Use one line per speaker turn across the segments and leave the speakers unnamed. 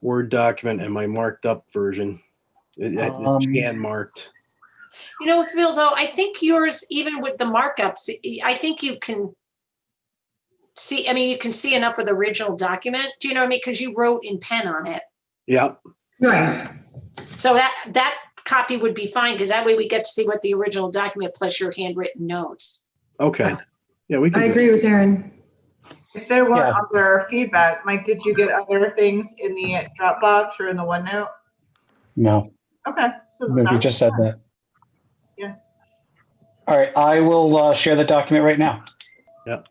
Word document and my marked up version. It- it-
Um,
It's hand marked.
You know, Phil, though, I think yours, even with the markups, I think you can see, I mean, you can see enough of the original document. Do you know what I mean? Because you wrote in pen on it.
Yep,
Right,
So that, that copy would be fine because that way we get to see what the original document plus your handwritten notes.
okay. Yeah, we can.
I
do
agree with Erin.
If there were
Yeah.
other feedback, Mike, did you get other things in the Dropbox or in the OneNote?
No,
Okay. so
you
that's-
just said that.
Yeah.
All right, I will uh, share the document right now.
Yep.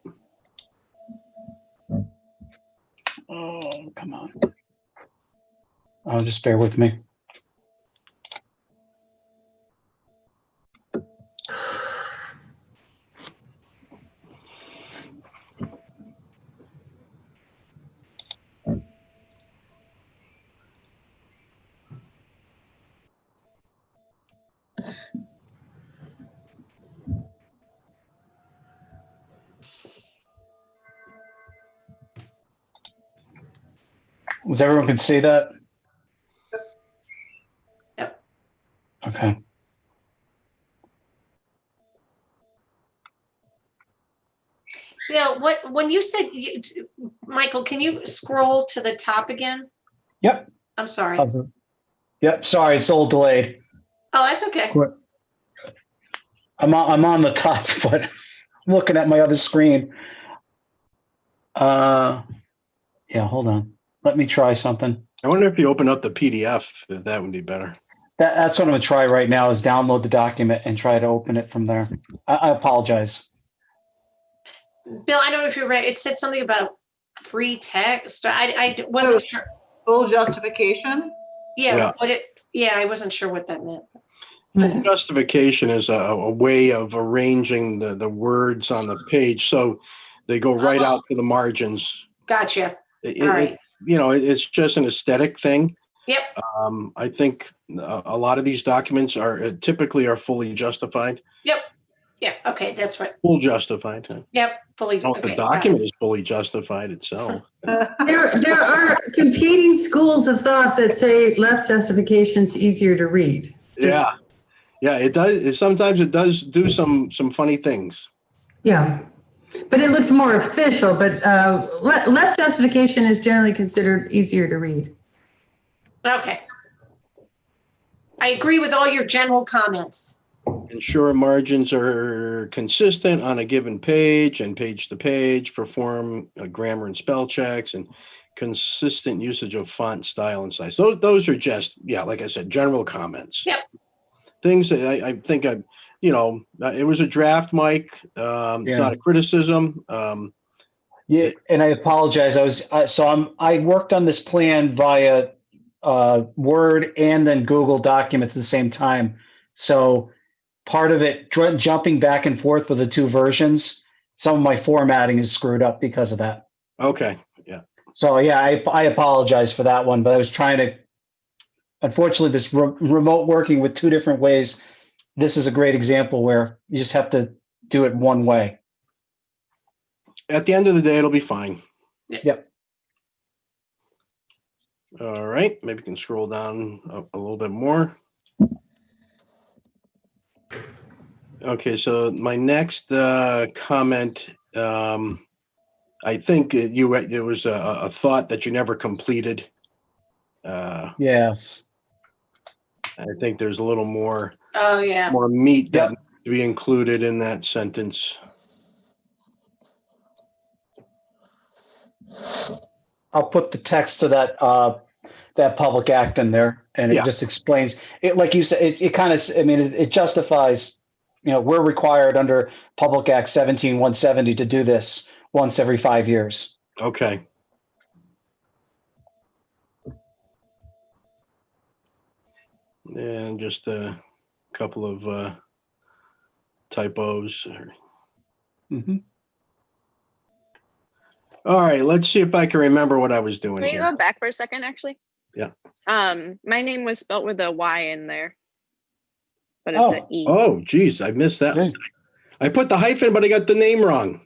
Oh, come on. Oh, just bear with me. Does everyone can see that?
Yep.
Okay.
Phil, what, when you said, you- Michael, can you scroll to the top again?
Yep.
I'm sorry. Oh,
How's it? Yep. Sorry, it's a little delayed.
that's okay.
I'm on, I'm on the top, but I'm looking at my other screen. Uh, yeah. Hold on. Let me try something.
I wonder if you open up the PDF, if that would be better.
That, that's what I'm gonna try right now is download the document and try to open it from there. I, I apologize.
Bill, I don't know if you're right. It said something about free text. I, I wasn't sure.
Full justification?
Yeah,
Yeah.
what it, yeah, I wasn't sure what that meant.
Right.
Justification is a, a way of arranging the, the words on the page, so they go right out to the margins.
Gotcha.
It-
All
it-
right.
you know, it- it's just an aesthetic thing.
Yep.
Um, I think a, a lot of these documents are uh, typically are fully justified,
Yeah, okay, that's right.
full justified. I
Yep, fully.
don't know if
okay,
Oh, the
got it.
document is fully justified itself.
There, there are competing schools of thought that say left justification's easier to read.
Yeah. Yeah, it does. It, sometimes it does do some, some funny things.
Yeah, but it looks more official, but uh, le- left justification is generally considered easier to read.
Okay. I agree with all your general comments.
Ensure margins are consistent on a given page and page to page, perform uh, grammar and spell checks and consistent usage of font style and size. Those, those are just, yeah, like I said, general comments.
Yep.
Things that I, I think I, you know, uh, it was a draft, Mike. Um, it's
Yeah.
not a criticism. Um,
Yeah, and I apologize. I was, uh, so I'm, I worked on this plan via uh, Word and then Google Documents at the same time. So part of it, dr- jumping back and forth with the two versions, some of my formatting is screwed up because of that.
okay.
So yeah, I, I apologize for that one, but I was trying to. Unfortunately, this re- remote working with two different ways. This is a great example where you just have to do it one way.
At the end of the day, it'll be fine.
Yeah.
Yep.
All right, maybe you can scroll down a, a little bit more. Okay, so my next uh, comment, um, I think it- you there was a, a thought that you never completed. Uh,
Yes.
I think there's a little more
Oh, yeah.
more meat that needs to be included in that sentence.
I'll put the text to that uh, that public act in there, and it
Yeah.
just explains it. Like you said, it, it kind of. I mean, it, it justifies. You know, we're required under Public Act 17170 to do this once every five years.
Okay. And just a couple of uh, typos.
Mhm.
All right, let's see if I can remember what I was doing
Can you
here.
go back for a second, actually?
Yeah.
Um, my name was spelt with a Y in there. But it's an E.
Oh, geez, I missed that. I put the hyphen, but I got the name wrong.